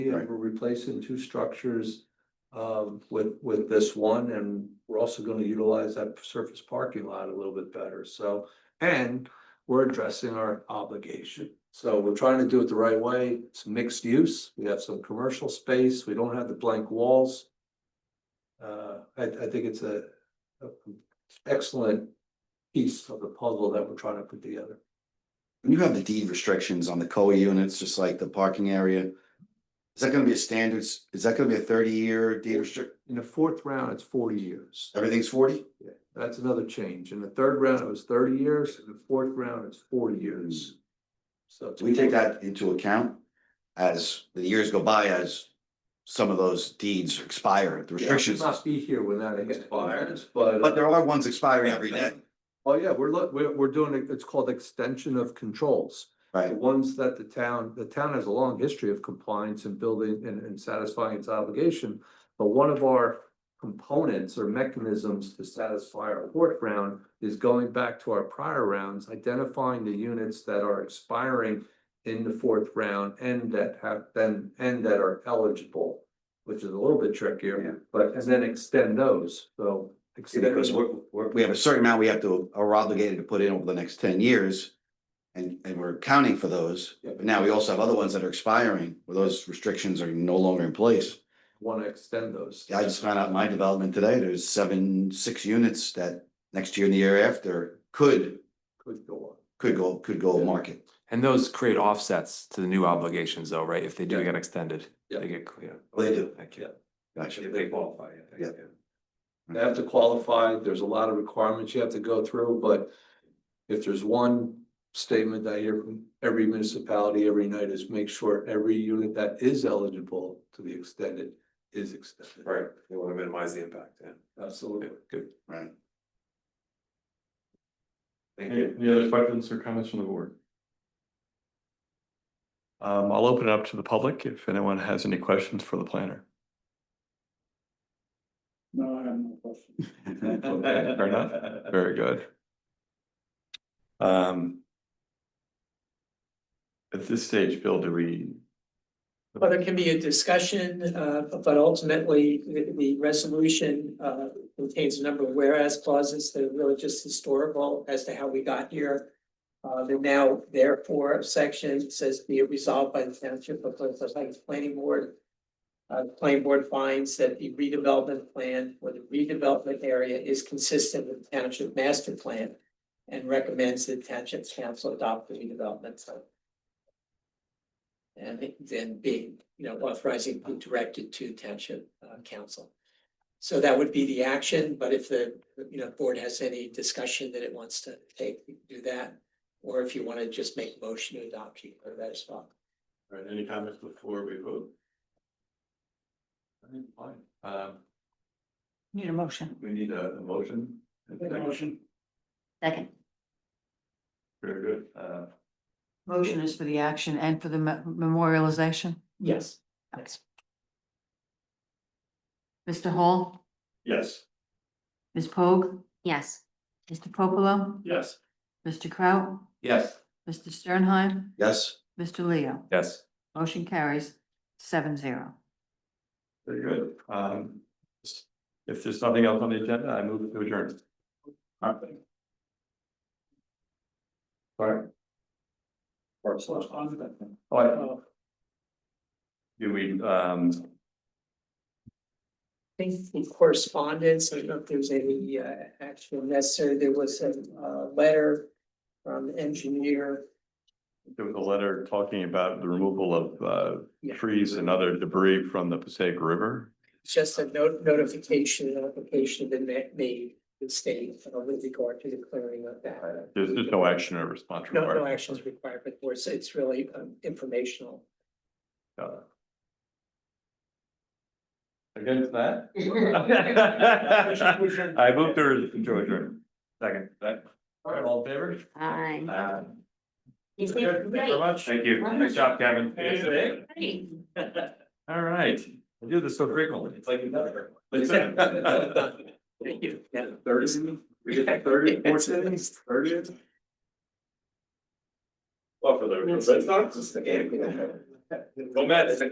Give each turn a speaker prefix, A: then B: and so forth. A: and we're replacing two structures um, with, with this one, and we're also gonna utilize that surface parking lot a little bit better, so. And we're addressing our obligation, so we're trying to do it the right way, it's mixed use, we have some commercial space, we don't have the blank walls. Uh, I, I think it's a, a excellent piece of the puzzle that we're trying to put together.
B: When you have the deed restrictions on the COA units, just like the parking area, is that gonna be a standards, is that gonna be a thirty-year deed restrict,
A: In the fourth round, it's forty years.
B: everything's forty?
A: Yeah, that's another change. In the third round, it was thirty years, in the fourth round, it's forty years. So. it's-
B: Do Mm. we take that into account as the years go by, as some of those deeds expire, the
A: Yeah,
B: restrictions?
A: we'll Not be here when that expires, but.
B: But there are ones expiring every day,
A: Oh, yeah, we're, look, we're, we're doing, it- it's called extension of controls. The
B: right?
A: ones that the town, the town has a long history of compliance and building and, and satisfying its obligation. But one of our components or mechanisms to satisfy our fourth round is going back to our prior rounds, identifying the units that are expiring in the fourth round and that have been, and that are eligible, which is a little bit
B: Yeah.
A: trickier, but, and then extend those, so. extend
B: Because
A: them.
B: we're, we're, we have a certain amount we have to, are obligated to put in over the next ten years. And, and we're accounting for those,
A: Yeah,
B: but now we also have other ones that are expiring, where those restrictions are no longer in place.
A: Want to extend those.
B: I just found out in my development today, there's seven, six units that next year and the year after could,
A: Could go on.
B: could go, could go
A: Yeah.
B: market.
C: And those create offsets to the new obligations though, right? If they do
A: Yeah.
C: get extended,
A: Yeah.
C: they get clear.
B: They do.
C: Thank you.
B: Gotcha.
C: If they qualify, I think,
A: They have to qualify, there's a lot of requirements you have to go through, but if there's one statement that I hear from every municipality every night is make sure every unit that is eligible to be extended is extended.
C: Right, they want to minimize the impact, yeah.
A: Absolutely.
C: Good,
B: Right.
C: thank
D: Any, any other questions or comments from the board? Um, I'll open it up to the public if anyone has any questions for the planner.
E: No, I have no question.
D: Okay, fair enough. Very good. Um. At this stage, Bill, do we?
E: Well, there can be a discussion, uh, but ultimately, the, the resolution, uh, contains a number of whereas clauses that are really just historical as to how we got here. Uh, the now therefore section says be it resolved by the township of Clifford Heights Planning Board. Uh, the planning board finds that the redevelopment plan for the redevelopment area is consistent with the township master plan. And recommends the township council adopt the redevelopment plan. And then being, you know, authorizing be directed to township uh, council. So that would be the action, but if the, you know, board has any discussion that it wants to take, we can do that. Or if you want to just make a motion to adopt, you can do that as well.
D: All right, any comments before we vote? I think fine. Um,
F: Need a motion.
D: we need a, a motion. Motion.
F: Second.
D: Very good. Uh,
F: Motion is for the action and for the me- memorialization.
E: Yes.
F: Thanks. Mr. Hall,
D: yes.
F: Ms. Pogue? Yes. Mr. Popolo,
D: Yes.
F: Mr. Kraut,
C: Yes.
F: Mr. Sternheim,
B: Yes,
F: Mr. Leo.
C: Yes,
F: Motion carries seven zero.
D: Very good. Um, if there's nothing else on the agenda, I move to adjourn. All right. All right. All right, do we, um,
E: Things in correspondence, I don't know if there's any uh action necessary, there was a uh letter from the engineer.
D: there was a letter talking about the removal of, uh,
E: Yeah.
D: trees and other debris from the Passaic River.
E: Just a note notification, an application that ma- made the state uh, with regard to the clearing of that.
D: There's, there's no action or response
E: No,
D: required.
E: no actions required, but it's, it's really um, informational.
D: Uh, Against that? I move to adjourn. Second. All right, all in favor?
F: Aye.
D: Uh,
F: He's
D: Okay,
F: been
D: Thank you very much. Thank you.
F: Wonderful.
D: Good job, Kevin. All right. I do this so frequently. It's like another.
E: Thank you. Yeah.
D: Thirty, we
E: did the thirty, fourth inning,
D: thirty. Well, for the, that's not just the game. Go Mets.